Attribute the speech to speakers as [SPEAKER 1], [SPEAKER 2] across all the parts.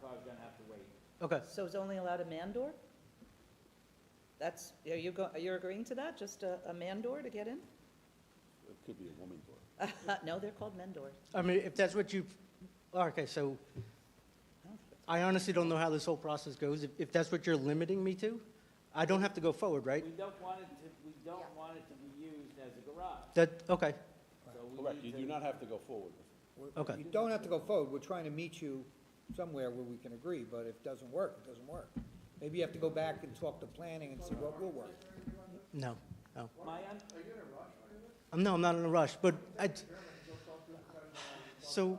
[SPEAKER 1] car's gonna have to wait.
[SPEAKER 2] Okay,
[SPEAKER 3] So it's only allowed a man door? That's, are you go, you're agreeing to that, just a, a man door to get in?
[SPEAKER 4] It could be a woman door.
[SPEAKER 3] No, they're called men doors.
[SPEAKER 2] I mean, if that's what you, okay, so
[SPEAKER 3] I don't think it's-
[SPEAKER 2] I honestly don't know how this whole process goes. If, if that's what you're limiting me to, I don't have to go forward, right?
[SPEAKER 1] We don't want it to, we don't want it to be used as a garage,
[SPEAKER 2] That, okay,
[SPEAKER 1] so we need to.
[SPEAKER 4] Correct, you do not have to go forward.
[SPEAKER 5] We're-
[SPEAKER 2] Okay.
[SPEAKER 5] You don't have to go forward, we're trying to meet you somewhere where we can agree, but if it doesn't work, it doesn't work. Maybe you have to go back and talk to planning and see what will work.
[SPEAKER 2] no, no.
[SPEAKER 1] My, un-
[SPEAKER 2] Um, No, I'm not in a rush, but I,
[SPEAKER 1] so
[SPEAKER 2] so,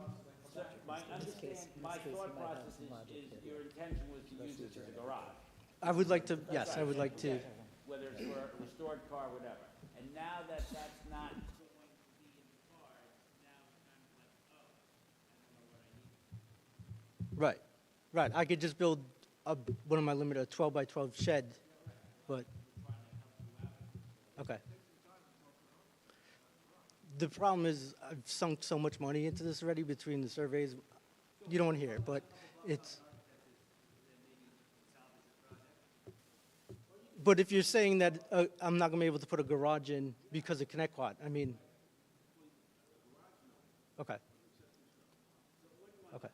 [SPEAKER 1] my understand, my thought process is, is your intention was to use this as a garage.
[SPEAKER 2] I would like to, yes, I would like to,
[SPEAKER 1] whether it's for a restored car, whatever. And now that that's not going to be in the car, now it's kind of like, oh, I don't know what I need.
[SPEAKER 2] right, right. I could just build a, one of my limited, a 12 by 12 shed, but, okay. The problem is, I've sunk so much money into this already between the surveys, you don't hear, it, but it's. But if you're saying that uh, I'm not gonna be able to put a garage in because of Connect Quad, I mean. Okay. Okay.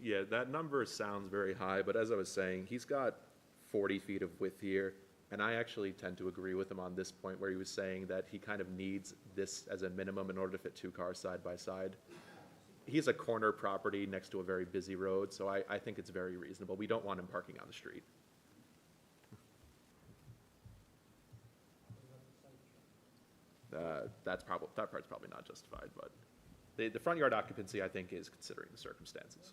[SPEAKER 6] Yeah, that number sounds very high, but as I was saying, he's got 40 feet of width here. And I actually tend to agree with him on this point where he was saying that he kind of needs this as a minimum in order to fit two cars side by side. He's a corner property next to a very busy road, so I, I think it's very reasonable. We don't want him parking on the street. Uh, That's probably, that part's probably not justified, but the, the front yard occupancy, I think, is considering the circumstances.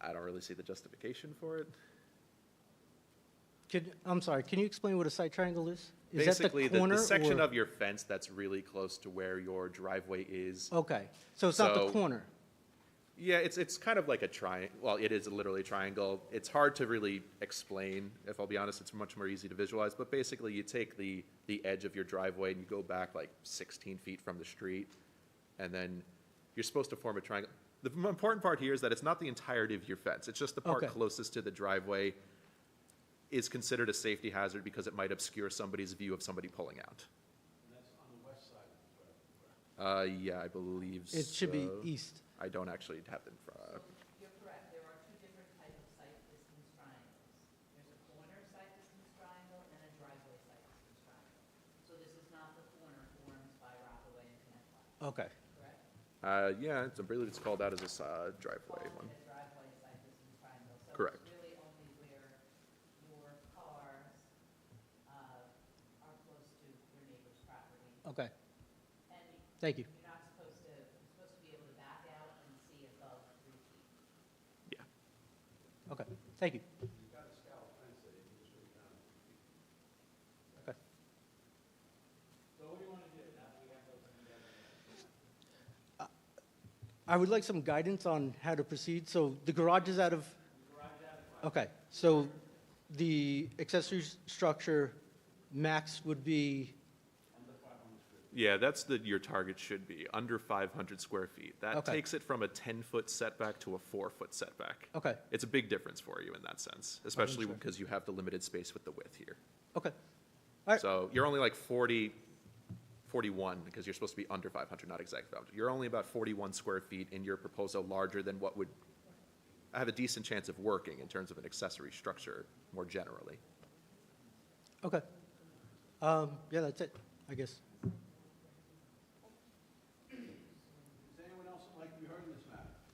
[SPEAKER 6] I don't really see the justification for it.
[SPEAKER 2] Could, I'm sorry, can you explain what a side triangle is? Is that
[SPEAKER 6] Basically, the,
[SPEAKER 2] corner
[SPEAKER 6] the section
[SPEAKER 2] or-
[SPEAKER 6] of your fence that's really close to where your driveway is.
[SPEAKER 2] Okay, so it's not the
[SPEAKER 6] So-
[SPEAKER 2] corner?
[SPEAKER 6] Yeah, it's, it's kind of like a tri, well, it is literally a triangle. It's hard to really explain, if I'll be honest, it's much more easy to visualize. But basically, you take the, the edge of your driveway and you go back like 16 feet from the street. And then you're supposed to form a triangle. The m- important part here is that it's not the entirety of your fence. It's just the part
[SPEAKER 2] Okay.
[SPEAKER 6] closest to the driveway is considered a safety hazard because it might obscure somebody's view of somebody pulling out. Uh, yeah, I believe so.
[SPEAKER 2] It should be east.
[SPEAKER 6] I don't actually have it in front.
[SPEAKER 7] You're correct, there are two different types of site distance triangles. There's a corner site distance triangle and a driveway site distance triangle. So this is not the corner formed by Rockaway and Connecticut,
[SPEAKER 2] Okay,
[SPEAKER 7] correct?
[SPEAKER 6] Uh, yeah, it's, I believe it's called out as a s- uh, driveway one.
[SPEAKER 7] Called a driveway site distance triangle.
[SPEAKER 6] Correct.
[SPEAKER 7] So it's really only where your cars uh, are close to your neighbor's property.
[SPEAKER 2] okay,
[SPEAKER 7] And
[SPEAKER 2] thank you.
[SPEAKER 7] you're not supposed to, you're supposed to be able to back out and see above three feet.
[SPEAKER 6] Yeah.
[SPEAKER 2] Okay, thank you. Okay. Uh, I would like some guidance on how to proceed. So the garage is out of? Okay, so the accessory s- structure max would be,
[SPEAKER 6] Yeah, that's the, your target should be, under 500 square feet. That
[SPEAKER 2] Okay.
[SPEAKER 6] takes it from a 10-foot setback to a four-foot setback.
[SPEAKER 2] okay,
[SPEAKER 6] It's a big difference for you in that sense, especially because you have the limited space with the width here.
[SPEAKER 2] okay. All right.
[SPEAKER 6] So you're only like 40, 41, because you're supposed to be under 500, not exactly 500. You're only about 41 square feet in your proposal larger than what would have a decent chance of working in terms of an accessory structure more generally.
[SPEAKER 2] Okay. Um, yeah, that's it, I guess.
[SPEAKER 8] Is anyone else like to be heard in this matter?